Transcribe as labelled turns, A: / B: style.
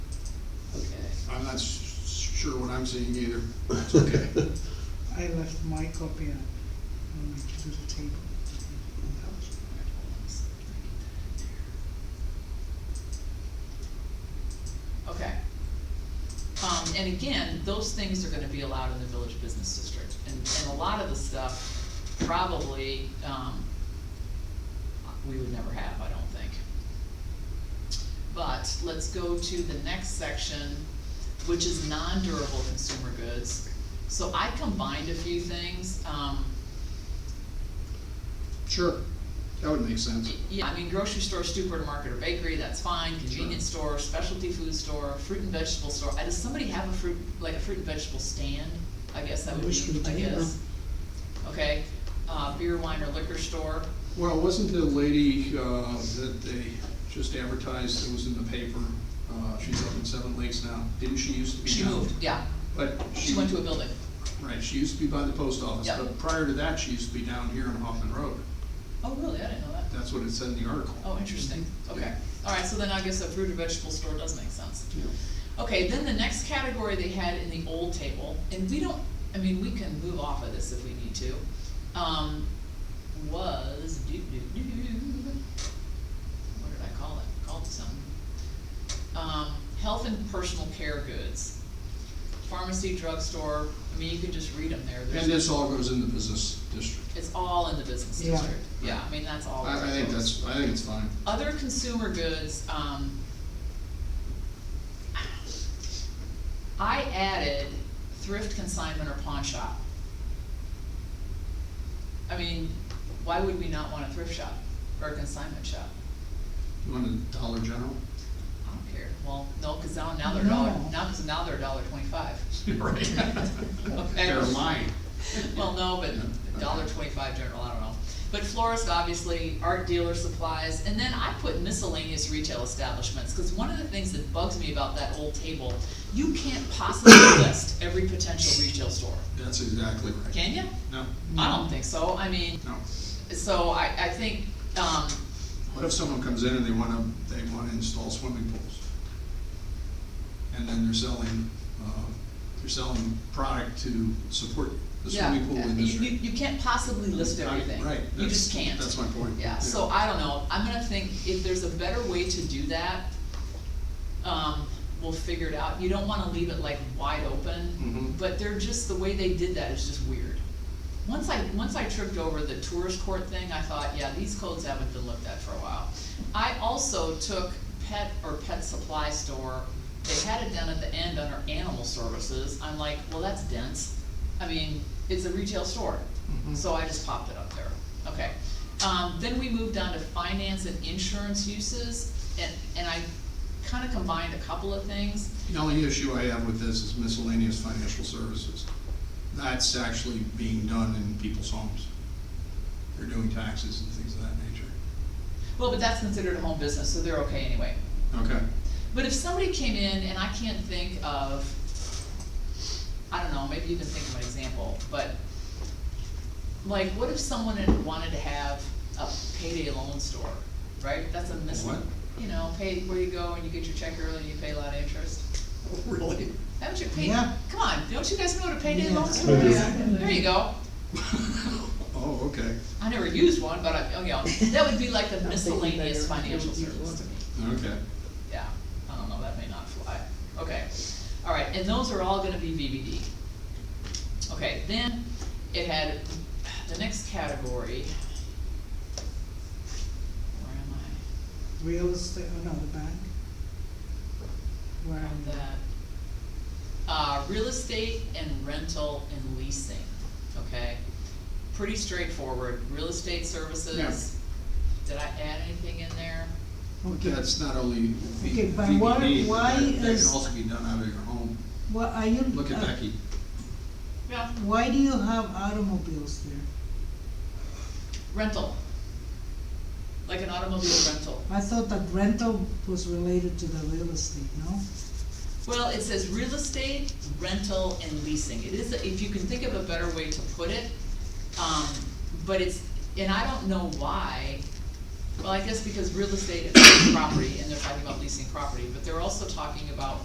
A: not s- sure what I'm seeing either. It's okay.
B: I left my copy on, on my little table.
C: Okay. Um, and again, those things are gonna be allowed in the village business district, and, and a lot of the stuff probably, um, we would never have, I don't think. But let's go to the next section, which is non-durable consumer goods. So I combined a few things, um,
A: Sure, that would make sense.
C: yeah, I mean, grocery store, supermarket, or bakery, that's fine, convenience store, specialty food store, fruit and vegetable store, Uh, does somebody have a fruit, like a fruit and vegetable stand? I guess that would
B: Wish we
C: be, I
B: did, huh?
C: guess. Okay, uh, beer, wine, or liquor store,
A: Well, wasn't the lady uh, that they just advertised, that was in the paper, uh, she's up in Seven Lakes now, didn't she used to be
C: she
A: down-
C: moved, yeah,
A: But
C: she
A: she,
C: went to a building,
A: right, she used to be by the post office,
C: Yeah.
A: but prior to that, she used to be down here on Hoffman Road.
C: oh, really, I didn't know that,
A: That's what it said in the article.
C: oh, interesting,
B: Mm-hmm.
C: okay, alright, so then I guess a fruit or vegetable store does make sense.
A: Yeah.
C: Okay, then the next category they had in the old table, and we don't, I mean, we can move off of this if we need to, um, was do do do. What did I call it? Called it something. Um, health and personal care goods, pharmacy, drugstore. I mean, you can just read them there.
A: And
C: There's,
A: this all goes in the business district.
C: it's all in the business
B: Yeah.
C: district. Yeah, I mean, that's all.
A: I, I think that's, I think it's fine.
C: Other consumer goods, um, I added thrift consignment or pawn shop. I mean, why would we not want a thrift shop or a consignment shop?
A: You want a Dollar General?
C: I don't care. Well, no, cause now, now they're a dollar,
B: No.
C: now, cause now they're a dollar twenty-five.
A: Right.
C: Okay.
A: They're mine.
C: Well, no, but a dollar twenty-five general, I don't know. But florist, obviously, art dealer supplies, and then I put miscellaneous retail establishments, cause one of the things that bugs me about that old table, you can't possibly list every potential retail store,
A: That's exactly right.
C: can you?
A: No,
C: I don't think so, I mean,
A: no.
C: so I, I think, um,
A: What if someone comes in and they wanna, they wanna install swimming pools? And then they're selling, uh, they're selling product to support the
C: yeah,
A: swimming pool
C: you,
A: industry.
C: you, you can't possibly list
A: Right,
C: everything.
A: Right.
C: You
A: that's-
C: just can't.
A: That's my point.
C: Yeah, so I don't know, I'm gonna think, if there's a better way to do that, um, we'll figure it out, you don't wanna leave it like wide open,
A: Mhm.
C: but they're just, the way they did that is just weird. Once I, once I tripped over the tourist court thing, I thought, yeah, these codes haven't been looked at for a while. I also took pet or pet supply store, they had it down at the end under animal services, I'm like, well, that's dense, I mean, it's a retail store.
A: Mhm.
C: So I just popped it up there, okay. Um, then we moved on to finance and insurance uses, and, and I kinda combined a couple of things.
A: The only issue I have with this is miscellaneous financial services. That's actually being done in people's homes. They're doing taxes and things of that nature.
C: Well, but that's considered a home business, so they're okay anyway.
A: Okay,
C: But if somebody came in and I can't think of, I don't know, maybe you can think of an example, but like, what if someone had wanted to have a payday loan store, right? That's a mis-
A: What?
C: You know, pay, where you go and you get your check early and you pay a lot of interest.
A: really?
C: Haven't you paid,
B: Yeah.
C: come on, don't you guys know what a payday
B: Yeah.
C: loan store is?
B: Yeah.
C: There you go,
A: Oh, okay,
C: I never used one, but I, oh, yeah, that would be like the
B: think we
C: miscellaneous
B: better-
C: financial
B: don't use
C: service to
B: one.
C: me,
A: okay.
C: yeah, I don't know, that may not fly, okay. All right, and those are all gonna be VBD. Okay, then it had, the next category, where am I?
B: Real estate, oh no, the bank. Where
C: Around
B: I'm at.
C: that. Uh, real estate and rental and leasing, okay? Pretty straightforward, real estate services. Did I add anything in there?
B: Okay,
A: That's not only
B: Okay,
A: V-
B: but why-
A: VBD,
B: why
A: that that can
B: is-
A: also be done out of your home.
B: well, are you?
A: Look at
B: uh,
A: Becky.
C: Yeah.
B: Why do you have automobiles there?
C: Rental. Like an automobile rental.
B: I thought that rental was related to the real estate, no?
C: Well, it says real estate, rental, and leasing. It is, if you can think of a better way to put it, um, but it's, and I don't know why. Well, I guess because real estate is property, and they're talking about leasing property, but they're also talking about